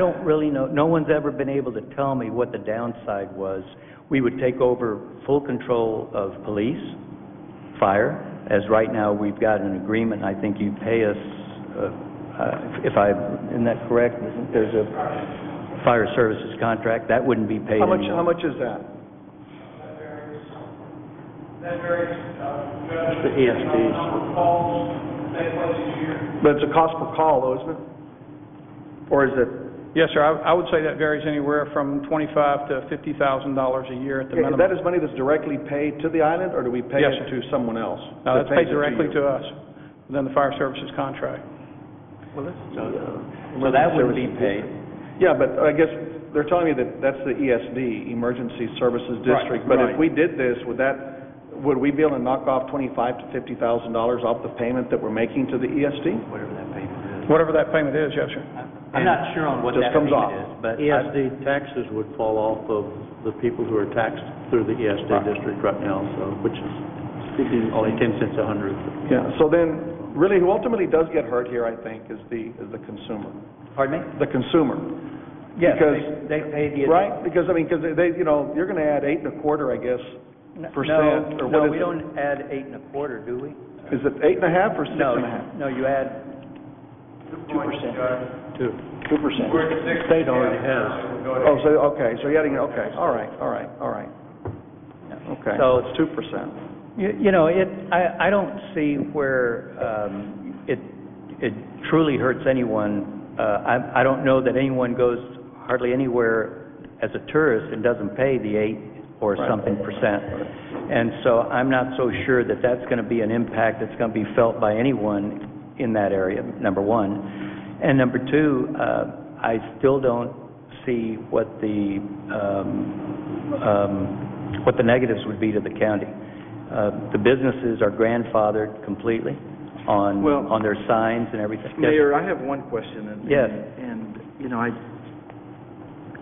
don't really know, no one's ever been able to tell me what the downside was. We would take over full control of police, fire, as right now, we've got an agreement, I think you pay us, uh, uh, if I, isn't that correct? Isn't- There's a fire services contract, that wouldn't be paid How much, anymore. how much is that? That varies, uh, Judge. The E ESPs. depending on the Number of calls that place each year. But it's a cost per call, though, isn't it? Or is it? Yes, sir, I I would say that varies anywhere from $25,000 to $50,000 a year at the Okay, minimum. That is money that's directly paid to the island, or do we pay Yes, it sir. to someone else? No, that that's pays paid it directly you? to us, within the fire services contract. So that wouldn't be paid. Yeah, but I guess they're telling me that that's the ESD, Emergency Services Right, District. But if right. we did this, would that, would we be able to knock off twenty-five to fifty thousand dollars off the payment that we're making to the E ESD? Whatever that payment is, yes, sir. I'm not sure on what Just that comes payment off. is, but I- ESD taxes would fall off of the people who are taxed through the ESD district right now, so, which is only 10 cents a hundred. Yeah, so then, really, who ultimately does get hurt here, I think, is the, is the consumer, Pardon me? the consumer. Yes, Because- they, they pay the... Right? Because, I mean, because they, you know, you're gonna add eight and a quarter, I guess, No, percent, or No, what we is it? don't add eight and a quarter, do we? Is it eight and a half or six No, and a half? No, you add Two percent. Two. Two percent. We're at six. State already has. We'll go to Oh, so, okay, so you're adding, okay, all right, all right, all right, okay. So- It's two percent. You you know, it, I, I don't see where um, it, it truly hurts anyone. Uh, I, I don't know that anyone goes hardly anywhere as a tourist and doesn't pay the eight or something percent. And so I'm not so sure that that's going to be an impact that's going to be felt by anyone in that area, number one. And number two, uh, I still don't see what the, um, um, what the negatives would be to the county. Uh, The businesses are grandfathered completely on, Well- on their signs and everything. Yes. Mayor, I have one question. and- Yes. And, you know, I,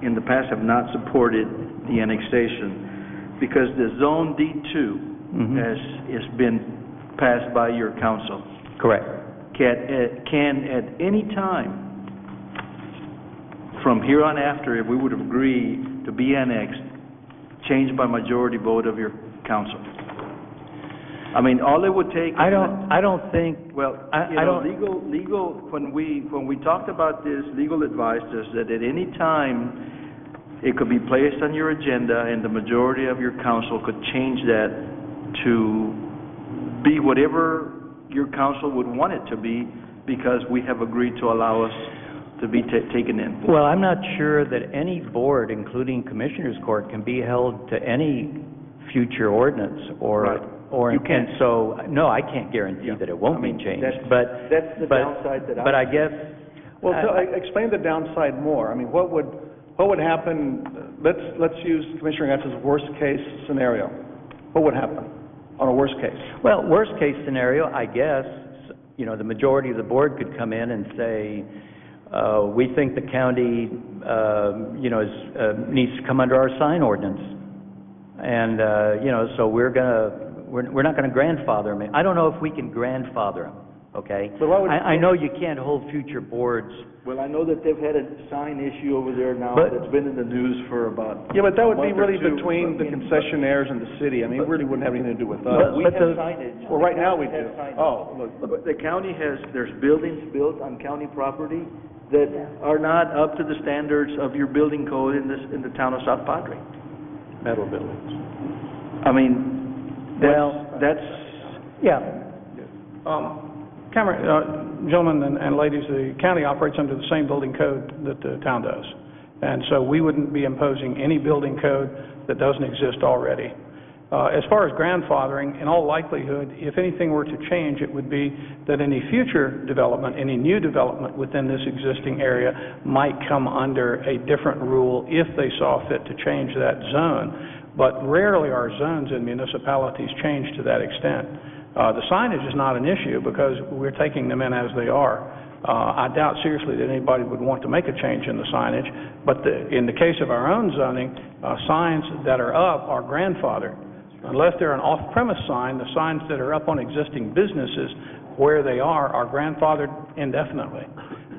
in the past, have not supported the annexation, because the Zone D2 Mm-hmm. Mhm. has, has been passed by your council. Correct. Can, eh, can at any time, from here on after, if we would agree to be annexed, change by majority vote of your council? I mean, all it would take. is I an- don't, I don't think, well, I- you I know, don't- legal, legal, when we, when we talked about this, legal advice is that at any time, it could be placed on your agenda, and the majority of your council could change that to be whatever your council would want it to be, because we have agreed to allow us to be ta- taken in. well, I'm not sure that any board, including Commissioners Court, can be held to any future ordinance or, Right. or, You and can't. so, no, I can't guarantee that it won't be changed, but. that's the but- downside that I- But I guess. uh, Well, I- so, e- explain the downside more. I mean, what would, what would happen, let's, let's use Commissioner Gatz's worst-case scenario. What would happen on a worst case? Well, worst-case scenario, I guess, you know, the majority of the board could come in and say, uh, we think the county, uh, you know, is, uh, needs to come under our sign ordinance. And, uh, you know, so we're gonna, we're, we're not gonna grandfather them. I don't know if we can grandfather them, okay? But why would- I, I know you can't hold future boards. Well, I know that they've had a sign issue over there now, But- that's been in the news for about. Yeah, but that would be month or really two, between the but- concessionaires and the city. I mean, it really wouldn't have anything to do with But- us. We but have the- signage. Well, right now, we The county do. has signage. Oh, look, But The county has, there's buildings built on county property that are not up to the standards of your building code in this, in the town of South Padre. metal buildings. I mean, Well- that's, that's, Yeah. Um, Cameron, uh, gentlemen and- and ladies, the county operates under the same building code that the town does. And so we wouldn't be imposing any building code that doesn't exist already. Uh, As far as grandfathering, in all likelihood, if anything were to change, it would be that any future development, any new development within this existing area might come under a different rule if they saw fit to change that zone. But rarely are zones in municipalities changed to that extent. Uh, The signage is not an issue because we're taking them in as they are. Uh, I doubt seriously that anybody would want to make a change in the signage, but the- in the case of our own zoning, uh, signs that are up are grandfathered. Unless they're an off-premise sign, the signs that are up on existing businesses where they are are grandfathered indefinitely.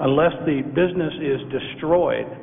unless the business is destroyed